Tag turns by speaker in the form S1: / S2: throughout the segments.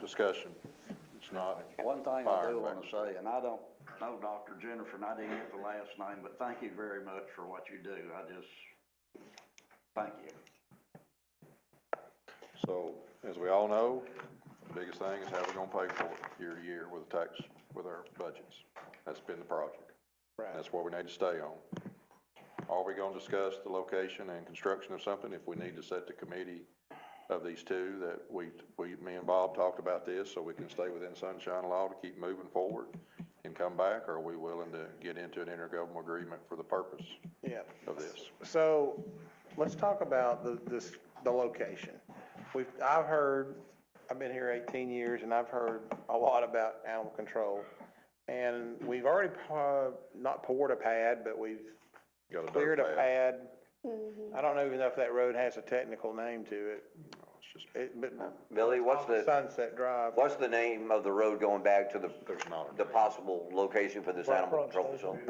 S1: discussion. It's not
S2: One thing I
S1: fire
S2: do want to
S1: evacuation.
S2: say, and I don't know Dr. Jennifer, and I didn't get the last name, but thank you very much for what you do. I just, thank you.
S1: So, as we all know, the biggest thing is how we're gonna pay for it year to year with the tax, with our budgets. That's been the project.
S3: Right.
S1: That's what we need to stay on. Are we gonna discuss the location and construction of something? If we need to set the committee of these two, that we, we, me and Bob talked about this, so we can stay within sunshine law to keep moving forward and come back, or are we willing to get into an intergovernmental agreement for the purpose
S3: Yeah.
S1: of this?
S3: So let's talk about the, this, the location. We've, I've heard, I've been here 18 years and I've heard a lot about animal control. And we've already, uh, not poured a pad, but we've
S1: Got a dirt
S3: cleared a
S1: pad.
S3: pad.
S4: Mm-hmm.
S3: I don't know even know if that road has a technical name to it.
S1: It's just,
S3: It, but
S5: Billy, what's the,
S3: Sunset Drive.
S5: what's the name of the road going back to the,
S1: there's not a.
S5: the possible location for this animal control facility?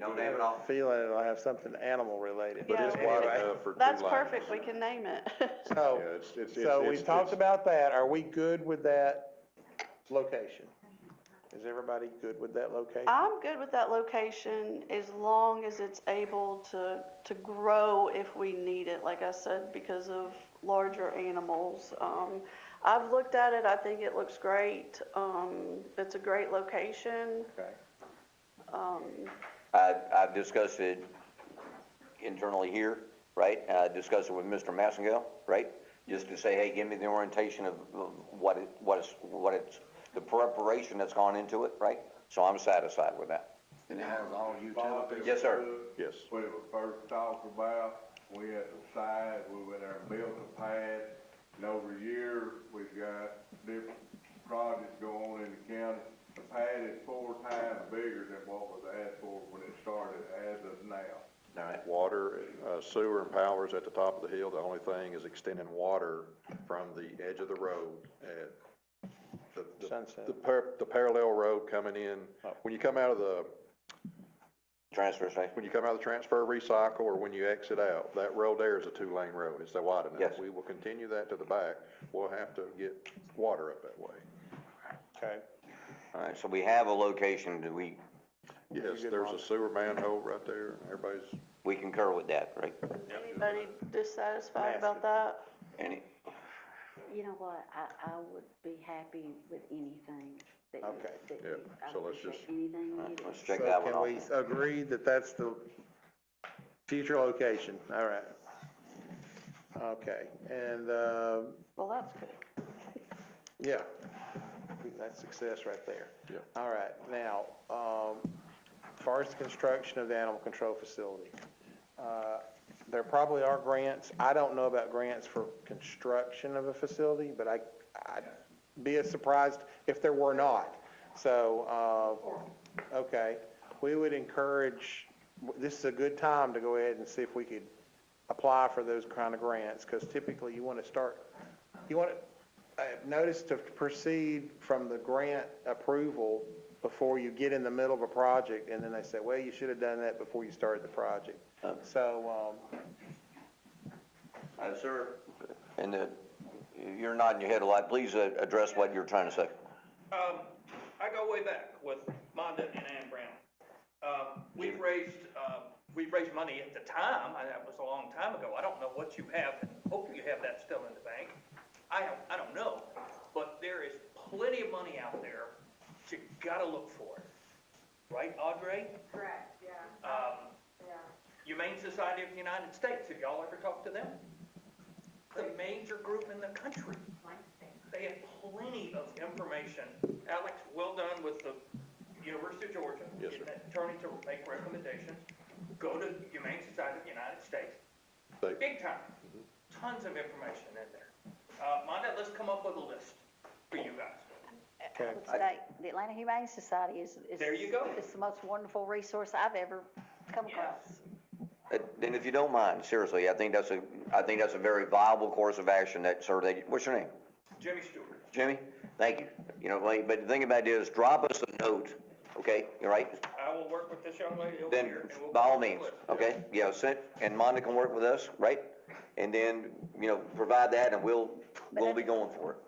S5: No name at all?
S3: Feeling it'll have something animal related.
S1: But it's
S3: Anyway.
S1: wide enough for two
S4: That's
S1: lanes.
S4: perfect, we can name it.
S3: So.
S1: Yeah, it's, it's.
S3: So
S1: it's-
S3: we've
S1: it's-
S3: talked about that. Are we good with that location? Is everybody good with that location?
S4: I'm good with that location as long as it's able to, to grow if we need it, like I said, because of larger animals. Um, I've looked at it, I think it looks great. Um, it's a great location. Um,
S3: Okay.
S5: I, I've discussed it internally here, right? And I discussed it with Mr. Massengill, right? Just to say, hey, give me the orientation of of what it, what it's, what it's, the preparation that's gone into it, right? So I'm satisfied with that.
S2: And it has all utilities.
S5: Yes, sir.
S1: Yes.
S6: We were first talked about, we had to decide, we went there and built a pad, and over years, we've got different projects going on in the county. The pad is four times bigger than what was asked for when it started as of now.
S5: All right.
S1: Water, uh, sewer and power's at the top of the hill. The only thing is extending water from the edge of the road at the, the.
S3: Sunset.
S1: The par, the parallel road coming in. When you come out of the,
S5: Transfer station.
S1: when you come out of the transfer recycle or when you exit out, that road there is a two-lane road. It's that wide enough.
S5: Yes.
S1: We will continue that to the back. We'll have to get water up that way.
S3: Okay.
S5: All right, so we have a location, do we,
S1: Yes,
S3: good,
S1: there's
S3: Ron.
S1: a sewer manhole right there. Everybody's
S5: we concur with that, right?
S4: Anybody dissatisfied about that?
S5: Any,
S7: You know what, I, I would be happy with anything that you,
S3: Okay.
S7: that
S1: Yeah,
S7: you, I
S1: so let's
S7: appreciate
S1: just- Uh-huh.
S7: anything you
S5: all right,
S7: do.
S5: let's check that one
S3: So
S5: off.
S3: can we agree that that's the future location? All right. Okay, and, uh,
S4: Well, that's good.
S3: yeah, that's success right there.
S1: Yeah.
S3: All right, now, um, far as the construction of the animal control facility, uh, there probably are grants. I don't know about grants for construction of a facility, but I, I'd be as surprised if there were not. So, uh, okay, we would encourage, this is a good time to go ahead and see if we could apply for those kind of grants, because typically you want to start, you want to, uh, notice to proceed from the grant approval before you get in the middle of a project, and then they say, well, you should have done that before you started the project. So, um,
S5: Uh, sir. And, uh, you're nodding your head a lot, please uh, address what you're trying to say.
S8: Um, I go way back with Monda and Ann Brown. Um, we've raised, uh, we raised money at the time, and that was a long time ago. I don't know what you have, and hopefully you have that still in the bank. I don't, I don't know, but there is plenty of money out there, but you gotta look for it. Right, Audrey?
S9: Correct, yeah,
S8: Um,
S9: yeah.
S8: Humane Society of the United States, have y'all ever talked to them? The major group in the country. They have plenty of information. Alex, well done with the University of Georgia.
S1: Yes, sir.
S8: Getting that attorney to make recommendations. Go to Humane Society of the United States.
S1: They-
S8: Big time.
S1: Mm-hmm.
S8: Tons of information in there. Uh, Monda, let's come up with a list for you guys.
S3: okay.
S7: I would say The Atlanta Humane Society is, is.
S8: There you go.
S7: It's the most wonderful resource I've ever come across.
S5: Uh, Then if you don't mind, seriously, I think that's a, I think that's a very viable course of action that, sir, that, what's your name?
S8: Jimmy Stewart.
S5: Jimmy? Thank you. You know, like, but the thing about it is, drop us a note, okay, all right?
S8: I will work with this young lady over
S5: Then,
S8: here. and we'll
S5: by all
S8: come up with a
S5: means,
S8: list.
S5: okay? Yeah, send, and Monda can work with us, right? And then, you know, provide that, and we'll, we'll be going for it.